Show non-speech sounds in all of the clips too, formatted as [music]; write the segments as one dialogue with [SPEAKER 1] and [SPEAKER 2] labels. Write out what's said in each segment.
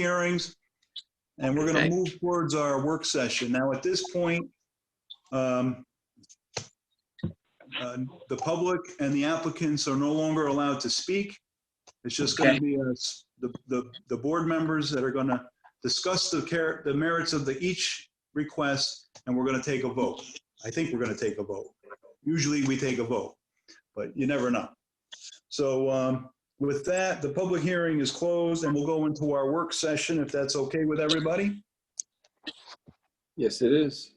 [SPEAKER 1] hearings, and we're going
[SPEAKER 2] Okay.
[SPEAKER 1] to move towards our work session. Now, at this point, um, uh, the public and the applicants are no longer allowed to speak. It's just going
[SPEAKER 2] Okay.
[SPEAKER 1] to be us, the, the, the board members that are going to discuss the care, the merits of the each request, and we're going to take a vote. I think we're going to take a vote. Usually, we take a vote, but you never know. So, um, with that, the public hearing is closed and we'll go into our work session if that's okay with everybody.
[SPEAKER 3] Yes, it is.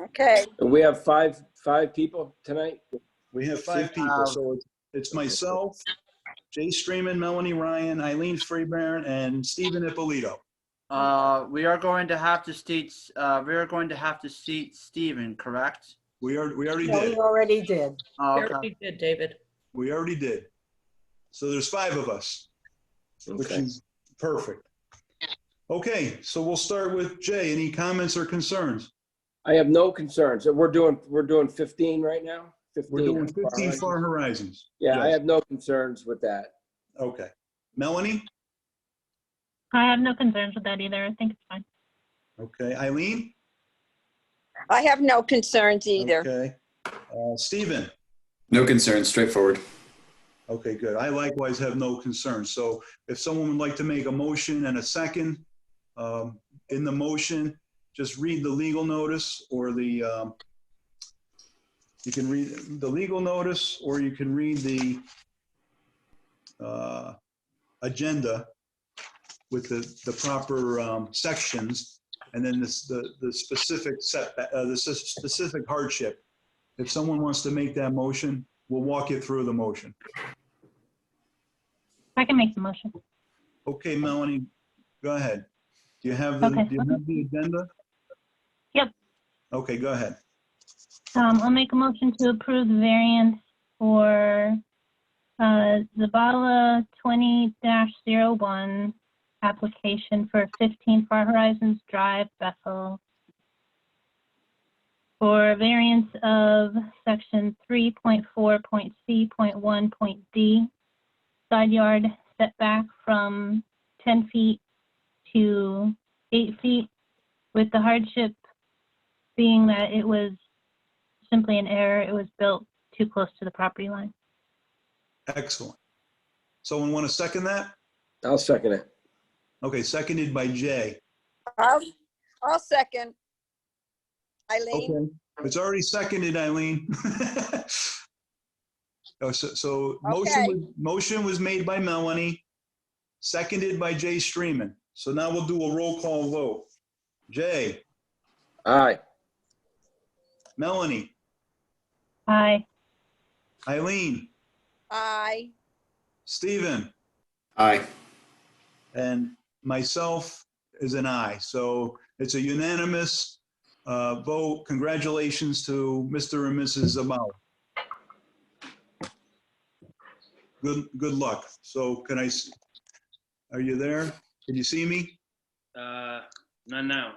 [SPEAKER 4] Okay,
[SPEAKER 3] And we have five, five people tonight?
[SPEAKER 1] We have five people, so it's- it's myself, Jay Streaman, Melanie Ryan, Eileen Freeburn, and Stephen Ippolito.
[SPEAKER 5] Uh, we are going to have to seat, uh, we are going to have to seat Stephen, correct?
[SPEAKER 1] We are, we already
[SPEAKER 4] yeah, we
[SPEAKER 1] did.
[SPEAKER 4] already did.
[SPEAKER 5] Oh, Okay.
[SPEAKER 6] Very good, David.
[SPEAKER 1] We already did. So there's five of us, which
[SPEAKER 3] Okay.
[SPEAKER 1] is perfect. Okay, so we'll start with Jay. Any comments or concerns?
[SPEAKER 3] I have no concerns. We're doing, we're doing 15 right now?
[SPEAKER 1] We're doing 15
[SPEAKER 3] Far
[SPEAKER 1] Far
[SPEAKER 3] Horizon.
[SPEAKER 1] Horizons.
[SPEAKER 3] Yeah, I
[SPEAKER 1] yes.
[SPEAKER 3] have no concerns with that.
[SPEAKER 1] Okay. Melanie?
[SPEAKER 7] I have no concerns with that either. I think it's fine.
[SPEAKER 1] Okay. Eileen?
[SPEAKER 4] I have no concerns either.
[SPEAKER 1] Okay. Uh, Stephen?
[SPEAKER 8] No concerns, straightforward.
[SPEAKER 1] Okay, good. I likewise have no concerns. So if someone would like to make a motion and a second, um, in the motion, just read the legal notice or the, um, you can read the legal notice or you can read the, uh, agenda with the, the proper, um, sections and then this, the, the specific setback, uh, the s- specific hardship. If someone wants to make that motion, we'll walk you through the motion.
[SPEAKER 7] I can make the motion.
[SPEAKER 1] Okay, Melanie, go ahead. Do you have, the
[SPEAKER 7] Okay.
[SPEAKER 1] do you have the agenda?
[SPEAKER 7] Yep.
[SPEAKER 1] Okay, go ahead.
[SPEAKER 7] Um, I'll make a motion to approve the variance for, uh, Zabala twenty one application for fifteen Far Horizons Drive, Bethel. For a variance of section three point four point C point one point D, side yard setback from ten feet to eight feet, with the hardship being that it was simply an error. It was built too close to the property line.
[SPEAKER 1] Excellent. Someone want to second that?
[SPEAKER 3] I'll second it.
[SPEAKER 1] Okay, seconded by Jay.
[SPEAKER 4] I'll, I'll second. Eileen,
[SPEAKER 1] Okay. It's already seconded, Eileen. [laughs] Oh, So, so motion,
[SPEAKER 4] Okay.
[SPEAKER 1] was- motion was made by Melanie, seconded by Jay Streaman. So now we'll do a roll call vote. Jay,
[SPEAKER 3] Aye.
[SPEAKER 1] Melanie,
[SPEAKER 7] Aye.
[SPEAKER 1] Eileen,
[SPEAKER 4] aye.
[SPEAKER 1] Stephen.
[SPEAKER 8] Aye.
[SPEAKER 1] And myself is an aye. So it's a unanimous uh, vote. Congratulations to Mr. and Mrs. Zamal. Good, good luck. So can I, s- are you there? Can you see me?
[SPEAKER 9] Uh, not now.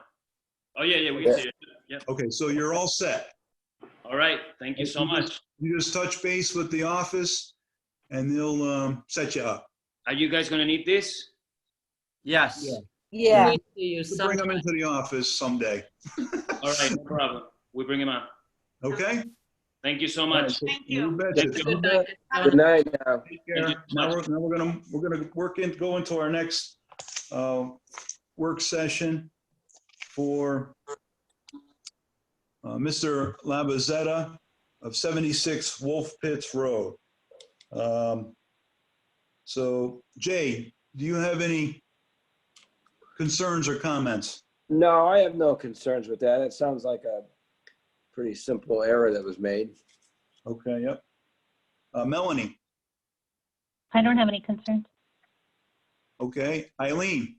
[SPEAKER 9] Oh, yeah, yeah, we can see it. Yep.
[SPEAKER 1] Okay, so you're all set.
[SPEAKER 9] All right. Thank you so much.
[SPEAKER 1] You just touch base with the office and they'll um, set you up.
[SPEAKER 9] Are you guys gonna need this?
[SPEAKER 5] yes.
[SPEAKER 4] Yeah,
[SPEAKER 6] We see you
[SPEAKER 1] We'll Bring them
[SPEAKER 6] sometime.
[SPEAKER 1] into the office someday,
[SPEAKER 9] All right, [laughs] no problem. We bring him on.
[SPEAKER 1] okay?
[SPEAKER 9] Thank you so much.
[SPEAKER 6] Thank
[SPEAKER 1] You
[SPEAKER 6] you.
[SPEAKER 1] betcha.
[SPEAKER 9] Thank you.
[SPEAKER 6] Good night.
[SPEAKER 3] Good night now.
[SPEAKER 1] Take care.
[SPEAKER 9] Thank you.
[SPEAKER 1] Now we're, now we're gonna, we're gonna work in, go into our next, uh, work session for, uh, Mr. Labazetta of 76 Wolf Pits Road. Um, So Jay, do you have any concerns or comments?
[SPEAKER 3] No, I have no concerns with that. It sounds like a pretty simple error that was made.
[SPEAKER 1] Okay, yep. Uh, Melanie,
[SPEAKER 7] I don't have any concerns.
[SPEAKER 1] okay. Eileen,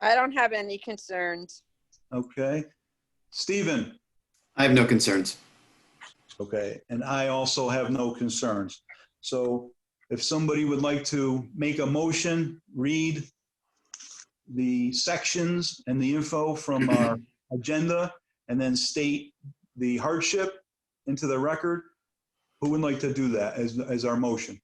[SPEAKER 4] I don't have any concerns.
[SPEAKER 1] okay. Stephen?
[SPEAKER 8] I have no concerns.
[SPEAKER 1] Okay, and I also have no concerns. So if somebody would like to make a motion, read the sections and the info from our agenda, and then state the hardship into the record, who would like to do that as, as our motion?